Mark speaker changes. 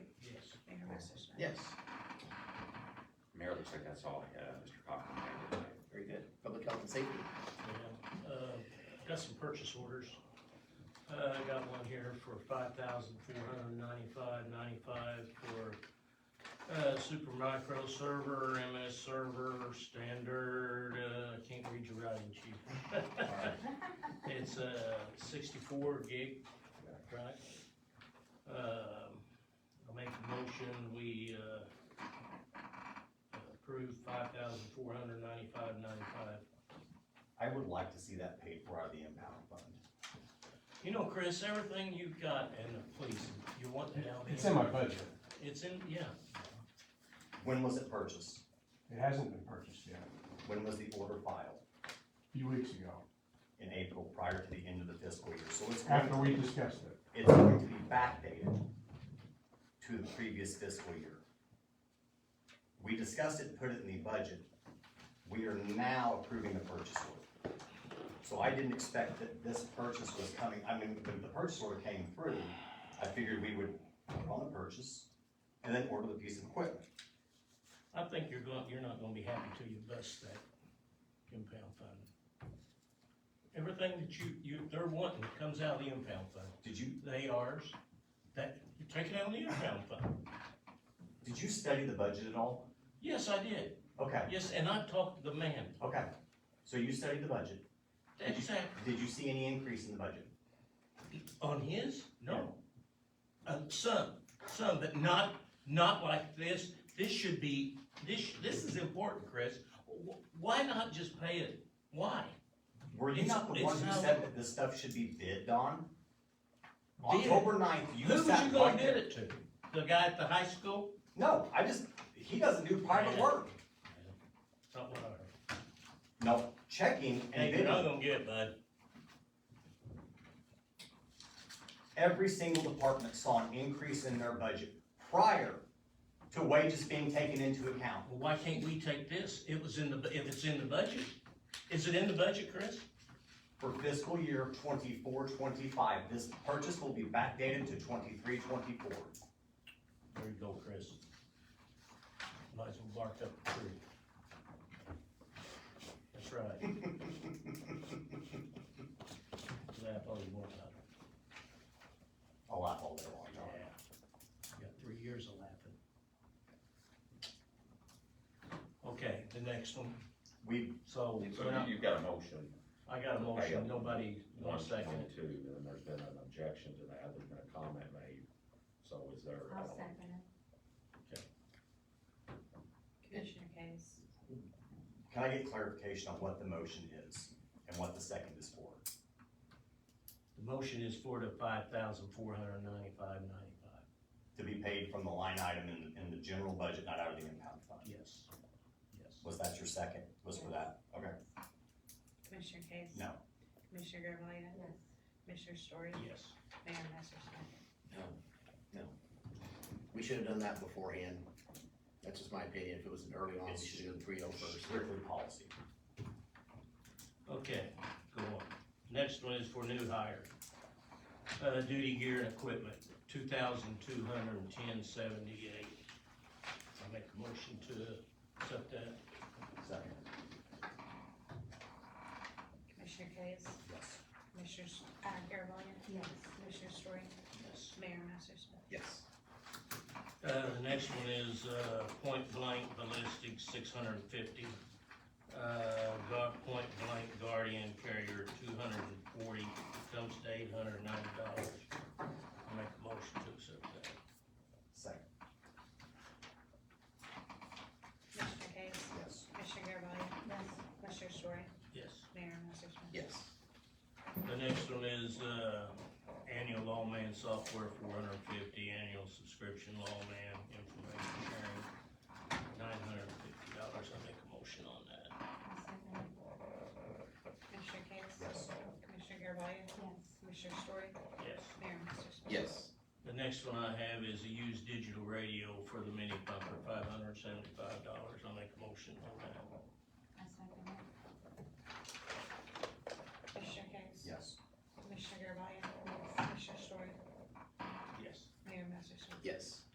Speaker 1: Yes,
Speaker 2: Mayor, looks like that's all I had, Mr. Cochran, thank you.
Speaker 1: very good. Public health and safety.
Speaker 3: Yeah, uh, got some purchase orders. Uh, I got one here for five thousand four hundred ninety-five ninety-five for, uh, Super Micro Server, MS Server, Standard, uh, I can't read your writing, chief. It's, uh, sixty-four gig, right? Um, I'll make a motion, we, uh, approve five thousand four hundred ninety-five ninety-five
Speaker 4: I would like to see that paid for out of the impound fund.
Speaker 3: You know, Chris, everything you've got in the police, you want that out.
Speaker 5: It's in my budget.
Speaker 3: It's in, yeah,
Speaker 4: When was it purchased?
Speaker 5: It hasn't been purchased yet,
Speaker 4: When was the order filed?
Speaker 5: a few weeks ago,
Speaker 4: In April, prior to the end of the fiscal year, so it's going
Speaker 5: after
Speaker 4: to,
Speaker 5: we discussed it.
Speaker 4: it's going to be backdated to the previous fiscal year. We discussed it, put it in the budget, we are now approving the purchase order. So I didn't expect that this purchase was coming, I mean, when the purchase order came through, I figured we would put on the purchase and then order the piece of equipment.
Speaker 3: I think you're going, you're not gonna be happy till you bust that impound fund. Everything that you, you, they're wanting comes out of the impound fund.
Speaker 4: Did you,
Speaker 3: They ours, that, you take it out of the impound fund.
Speaker 4: did you study the budget at all?
Speaker 3: Yes, I did.
Speaker 4: Okay,
Speaker 3: Yes, and I talked to the man.
Speaker 4: okay. So you studied the budget. Did you-
Speaker 3: Exactly.
Speaker 4: Did you see any increase in the budget?
Speaker 3: On his? No. Um, some, some, but not, not like this. This should be, this, this is important, Chris. Wh- Why not just pay it? Why?
Speaker 4: Were you
Speaker 3: It's-
Speaker 4: not the
Speaker 3: it's
Speaker 4: one who
Speaker 3: not-
Speaker 4: said that this stuff should be bid on?
Speaker 3: Bid?
Speaker 4: October ninth, you
Speaker 3: Who was
Speaker 4: sat
Speaker 3: you
Speaker 4: right
Speaker 3: gonna
Speaker 4: there.
Speaker 3: bid it to? The guy at the high school?
Speaker 4: No, I just, he doesn't do private
Speaker 3: Yeah.
Speaker 4: work.
Speaker 3: Not what I heard.
Speaker 4: No, checking and
Speaker 3: Hey, you're not
Speaker 4: bidding,
Speaker 3: gonna get it, bud.
Speaker 4: every single department saw an increase in their budget prior to wages being taken into account.
Speaker 3: Well, why can't we take this? It was in the, bu- if it's in the budget. Is it in the budget, Chris?
Speaker 4: For fiscal year 24-25. this purchase will be backdated to 23-24.
Speaker 3: There you go, Chris. Might as well bark up the tree. That's right. Laugh all you want, bud.
Speaker 4: I'll laugh all day long, John.
Speaker 3: You Got three years of laughing. Okay, the next one,
Speaker 4: We
Speaker 3: so,
Speaker 2: So
Speaker 3: we're not-
Speaker 2: you- you've got a motion.
Speaker 3: I got a motion, nobody wants to second it.
Speaker 2: Two, and there's been an objection to that, there's been a comment made, so is there?
Speaker 6: I'll second it.
Speaker 2: Okay.
Speaker 6: Commissioner Case,
Speaker 4: Can I get clarification on what the motion is and what the second is for?
Speaker 3: The motion is for the five thousand four hundred ninety-five ninety-five,
Speaker 4: To be paid from the line item in, in the general budget, not out of the impound fund?
Speaker 3: yes, yes.
Speaker 4: Was that your second? Was for that? Okay,
Speaker 7: Commissioner Case?
Speaker 4: no.
Speaker 7: Commissioner Garvelia?
Speaker 6: yes.
Speaker 7: Commissioner Story?
Speaker 3: Yes.
Speaker 7: Mayor Masser Smith?
Speaker 1: We should have done that beforehand. That's just my opinion. If it was an early on, we should have done three oh first.
Speaker 4: Strictly policy.
Speaker 3: Okay, go on. Next one is for new hire. Uh, duty gear and equipment, two thousand two hundred and ten seventy-eight. I make a motion to accept that.
Speaker 4: Second.
Speaker 7: Commissioner Case?
Speaker 4: Yes.
Speaker 7: Commissioner, S- uh, Garvelia?
Speaker 6: Yes.
Speaker 7: Commissioner Story?
Speaker 3: Yes.
Speaker 7: Mayor Masser Smith?
Speaker 1: Yes.
Speaker 3: Uh, the next one is, uh, point blank ballistic, six hundred and fifty. Uh, gu- point blank guardian carrier, two hundred and forty, comes to eight hundred and ninety dollars. I make a motion to accept that.
Speaker 4: Second,
Speaker 7: Commissioner Case?
Speaker 4: yes.
Speaker 7: Commissioner Garvelia?
Speaker 6: Yes.
Speaker 7: Commissioner Story?
Speaker 3: Yes.
Speaker 7: Mayor Masser Smith?
Speaker 1: Yes.
Speaker 3: The next one is, uh, annual lawman software, four hundred and fifty, annual subscription lawman information sharing, nine hundred and fifty dollars, I make a motion on that.
Speaker 6: I'll second it.
Speaker 7: Commissioner Case?
Speaker 4: Yes.
Speaker 7: Commissioner Garvelia?
Speaker 6: Yes.
Speaker 7: Commissioner Story?
Speaker 3: Yes.
Speaker 7: Mayor Masser Smith?
Speaker 1: Yes.
Speaker 3: The next one I have is a used digital radio for the mini pumper, five hundred and seventy-five dollars, I make a motion on that.
Speaker 6: I'll second it.